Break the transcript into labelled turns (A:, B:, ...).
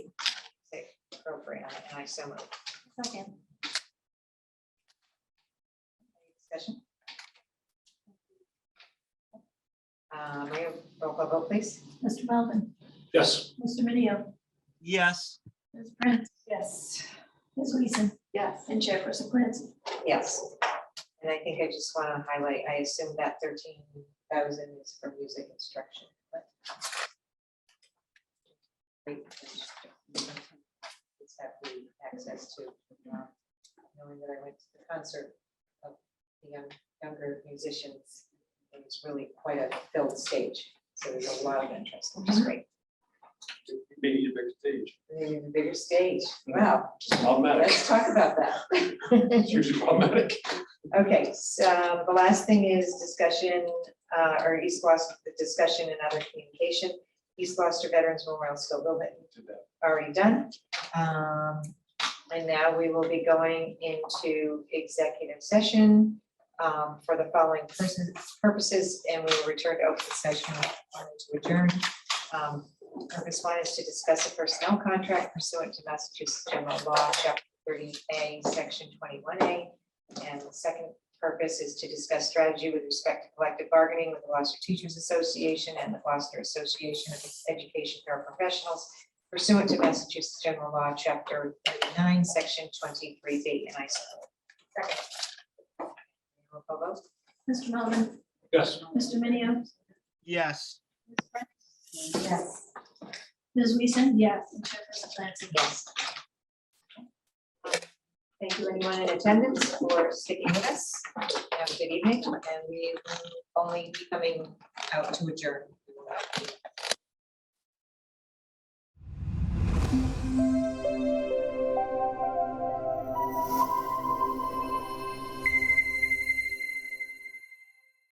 A: appropriate, and I so moved.
B: Second.
A: Any Discussion? Uh, may I have roll call vote, please?
B: Mr. Melvin,
C: Yes.
B: Mr. Minio,
D: yes,
B: Ms. Prince,
A: Yes.
B: Ms. Weason,
E: Yes.
B: and Chairperson Clancy.
A: Yes. And I think I just want to highlight, I assume that thirteen thousand is for music instruction, but. Great. It's have the access to, uh, knowing that I went to the concert of the young, younger musicians. It was really quite a filled stage, so there's a lot of interest, which is great.
C: They need a bigger stage.
A: And then the bigger stage, wow,
C: Problematic.
A: let's talk about that.
C: It's usually problematic.
A: Okay, so uh, the last thing is discussion, uh, or East Gloucester, the discussion and other communication. East Gloucester Veterans Memorial School building
C: Did that.
A: already done. Um, and now we will be going into executive session, um, for the following person- purposes, and we will return to open session prior to adjourn. Um, purpose one is to discuss a personnel contract pursuant to Massachusetts General Law, Chapter thirty A, Section twenty-one A. And the second purpose is to discuss strategy with respect to collective bargaining with the Gloucester Teachers Association and the Gloucester Association of Education Paraprofessionals pursuant to Massachusetts General Law, Chapter thirty-nine, Section twenty-three B, and I so move. Second. Roll call vote.
B: Mr. Melvin,
C: Yes.
B: Mr. Minio,
D: yes.
A: Yes.
B: Ms. Weason, yes, and Chairperson Clancy.
A: Yes. Thank you, anyone in attendance, for sticking with us. Have a good evening, and we will only be coming out to adjourn.